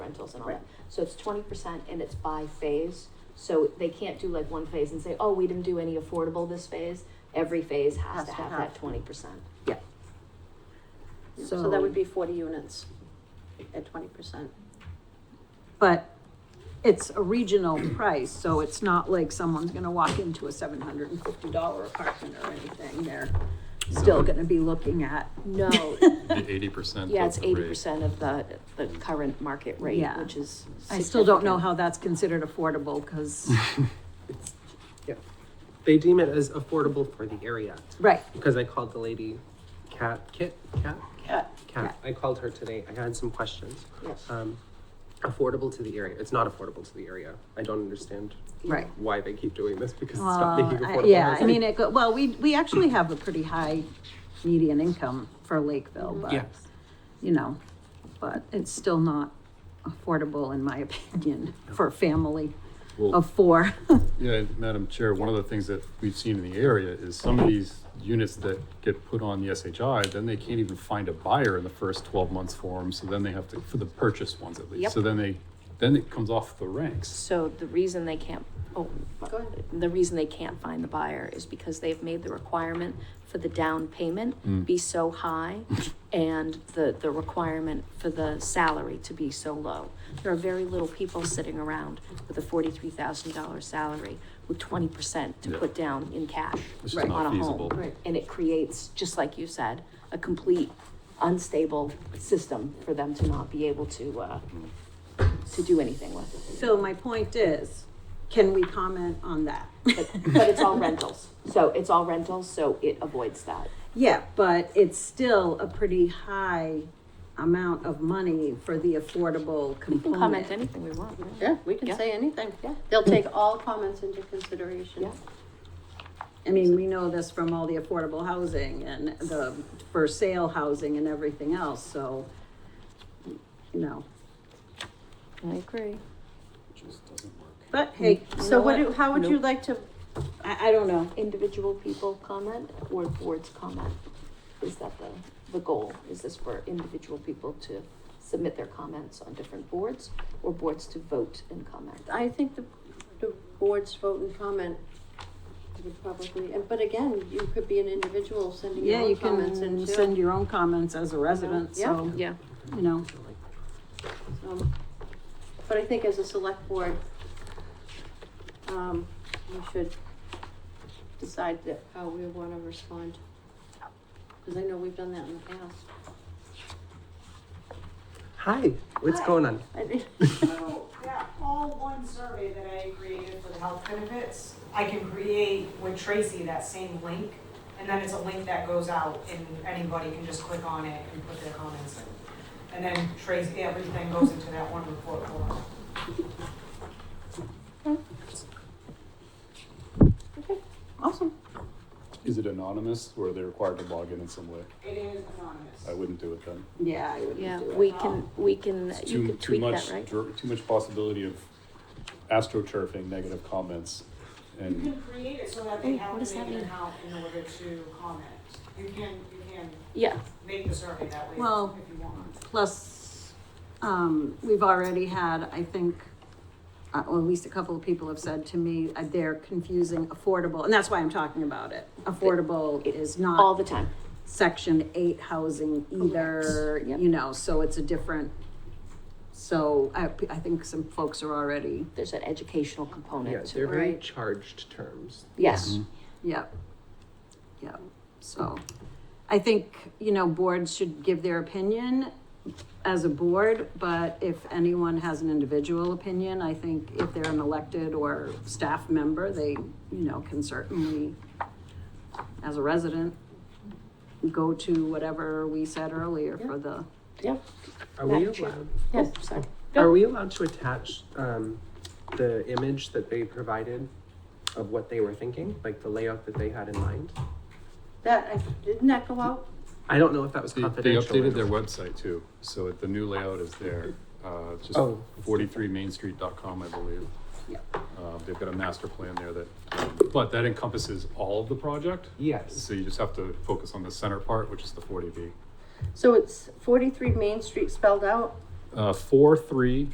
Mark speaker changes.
Speaker 1: rentals and all
Speaker 2: Right.
Speaker 1: that. So it's twenty percent and it's by phase, so they can't do like one phase and say, oh, we didn't do any affordable this phase. Every phase has to have that twenty percent.
Speaker 2: Yeah.
Speaker 1: So
Speaker 3: So that would be forty units at twenty percent.
Speaker 2: But it's a regional price, so it's not like someone's gonna walk into a seven hundred and fifty dollar apartment or anything. They're still gonna be looking at,
Speaker 1: No,
Speaker 4: Eighty percent.
Speaker 1: yeah, it's eighty percent of the, the current market rate,
Speaker 2: Yeah.
Speaker 1: which is.
Speaker 2: I still don't know
Speaker 1: significant.
Speaker 2: how that's considered affordable, cause,
Speaker 5: They deem it as affordable for the area
Speaker 2: right,
Speaker 5: because I called the lady, Cat, Kit, Cat,
Speaker 2: yeah,
Speaker 5: Cat. I called her today. I had some questions.
Speaker 1: Yes.
Speaker 5: Um, affordable to the area. It's not affordable to the area. I don't understand
Speaker 2: right.
Speaker 5: why they keep doing this because it's not
Speaker 2: Well,
Speaker 5: making
Speaker 2: I-
Speaker 5: affordable.
Speaker 2: yeah, I
Speaker 5: housing.
Speaker 2: mean, it, go- well, we, we actually have a pretty high median income for Lakeville,
Speaker 5: Yeah.
Speaker 2: but, you know, but it's still not affordable, in my opinion, for a family
Speaker 4: Well,
Speaker 2: of four.
Speaker 4: yeah, Madam Chair, one of the things that we've seen in the area is some of these units that get put on the SHI, then they can't even find a buyer in the first twelve months for them, so then they have to, for the purchase ones at
Speaker 1: Yep.
Speaker 4: least, so then they, then it comes off the ranks.
Speaker 1: So the reason they can't, oh,
Speaker 3: Go ahead.
Speaker 1: the reason they can't find the buyer is because they've made the requirement for the down
Speaker 4: Mm.
Speaker 1: payment be so high and the, the requirement for the salary to be so low. There are very little people sitting around with a forty-three thousand dollar salary with twenty percent to
Speaker 4: Yeah.
Speaker 1: put down in cash
Speaker 4: It's just
Speaker 2: Right.
Speaker 1: on
Speaker 4: not
Speaker 1: a home.
Speaker 4: feasible.
Speaker 2: Right.
Speaker 1: And it creates, just like you said, a complete unstable system for them to not be able to, uh, to do anything with.
Speaker 2: So my point is, can we comment on that?
Speaker 1: But, but it's all rentals, so it's all rentals, so it avoids that.
Speaker 2: Yeah, but it's still a pretty high amount of money for the affordable component.
Speaker 1: anything we want, yeah.
Speaker 3: Yeah, we can
Speaker 1: Yeah.
Speaker 3: say anything.
Speaker 1: Yeah.
Speaker 3: They'll take all comments into consideration.
Speaker 1: Yeah.
Speaker 2: I mean, we know this from all the affordable housing and the for sale housing and everything else, so, you know,
Speaker 1: I agree.
Speaker 4: Just doesn't work.
Speaker 2: but hey. you
Speaker 3: So
Speaker 2: know
Speaker 3: what, do- how would you like to,
Speaker 2: I, I don't know.
Speaker 1: Individual people comment or boards comment? Is that the, the goal? Is this for individual people to submit their comments on different boards or boards to vote and comment?
Speaker 3: I think the, the board's vote and comment would probably, and, but again, you could be an individual sending your
Speaker 2: Yeah, you
Speaker 3: own comments
Speaker 2: can
Speaker 3: in
Speaker 2: send
Speaker 3: too.
Speaker 2: your own comments as a resident,
Speaker 3: Yeah.
Speaker 2: so,
Speaker 1: Yeah.
Speaker 2: you know,
Speaker 3: Um, But I think as a select board, um, we should decide that how we wanna respond. Cause I know we've done that in the past.
Speaker 5: Hi, what's
Speaker 6: Hi.
Speaker 5: going on?
Speaker 3: I mean-
Speaker 6: So that all one survey that I created for the health benefits, I can create with Tracy that same link. And then it's a link that goes out and anybody can just click on it and put their comments in. And then Tracy, everything goes into that one report form.
Speaker 2: awesome.
Speaker 4: Is it anonymous or are they required to log in in some way?
Speaker 6: It is
Speaker 4: I
Speaker 6: anonymous.
Speaker 4: wouldn't do it then.
Speaker 2: Yeah, I wouldn't
Speaker 1: Yeah,
Speaker 2: do it.
Speaker 1: we can, we can,
Speaker 4: It's
Speaker 1: you
Speaker 4: too,
Speaker 1: could
Speaker 4: too
Speaker 1: tweak that,
Speaker 4: much,
Speaker 1: right?
Speaker 4: dr- too much possibility of astroturfing negative comments
Speaker 6: You
Speaker 4: and
Speaker 6: can create it so that they
Speaker 1: Wait,
Speaker 6: have
Speaker 1: what
Speaker 6: to
Speaker 1: does
Speaker 6: make
Speaker 1: that
Speaker 6: an
Speaker 1: mean?
Speaker 6: account in order to comment. You can, you can
Speaker 1: Yeah,
Speaker 6: make the survey that way if
Speaker 2: Well-
Speaker 6: if you want.
Speaker 2: Plus, um, we've already had, I think, uh, or at least a couple of people have said to me, uh, they're confusing affordable, and that's why I'm talking about it. Affordable is
Speaker 1: all
Speaker 2: not
Speaker 1: the time.
Speaker 2: section eight housing either,
Speaker 1: Yep.
Speaker 2: you know, so it's a different. So I, I think some folks are already,
Speaker 1: There's an educational
Speaker 5: Yeah,
Speaker 1: component to
Speaker 5: they're
Speaker 1: it.
Speaker 5: very
Speaker 3: Right.
Speaker 5: charged terms.
Speaker 1: Yes,
Speaker 3: Mm-hmm.
Speaker 2: yep, yep, so. I think, you know, boards should give their opinion as a board, but if anyone has an individual opinion, I think if they're an elected or staff member, they, you know, can certainly, as a resident, go to whatever we said earlier for the,
Speaker 1: yep,
Speaker 5: Are we
Speaker 1: Madam Chair.
Speaker 5: allowed?
Speaker 1: yes, Oh, sorry.
Speaker 5: Are we allowed to attach um, the image that they provided of what they were thinking, like the layout that they had in mind?
Speaker 3: That, I- didn't that go out?
Speaker 5: I don't know if that was
Speaker 4: They, they
Speaker 5: confidential. or
Speaker 4: updated their
Speaker 5: not.
Speaker 4: website too, so it- the new layout is there, uh, it's just
Speaker 5: Oh.
Speaker 4: forty-three mainstreet.com, I believe.
Speaker 2: Yeah.
Speaker 4: Uh, they've got a master plan there that, um, but that encompasses all of the project,
Speaker 5: Yes.
Speaker 4: so you just have to focus on the center part, which is the forty B.
Speaker 3: So it's forty-three Main Street spelled out?
Speaker 4: Uh, four, three,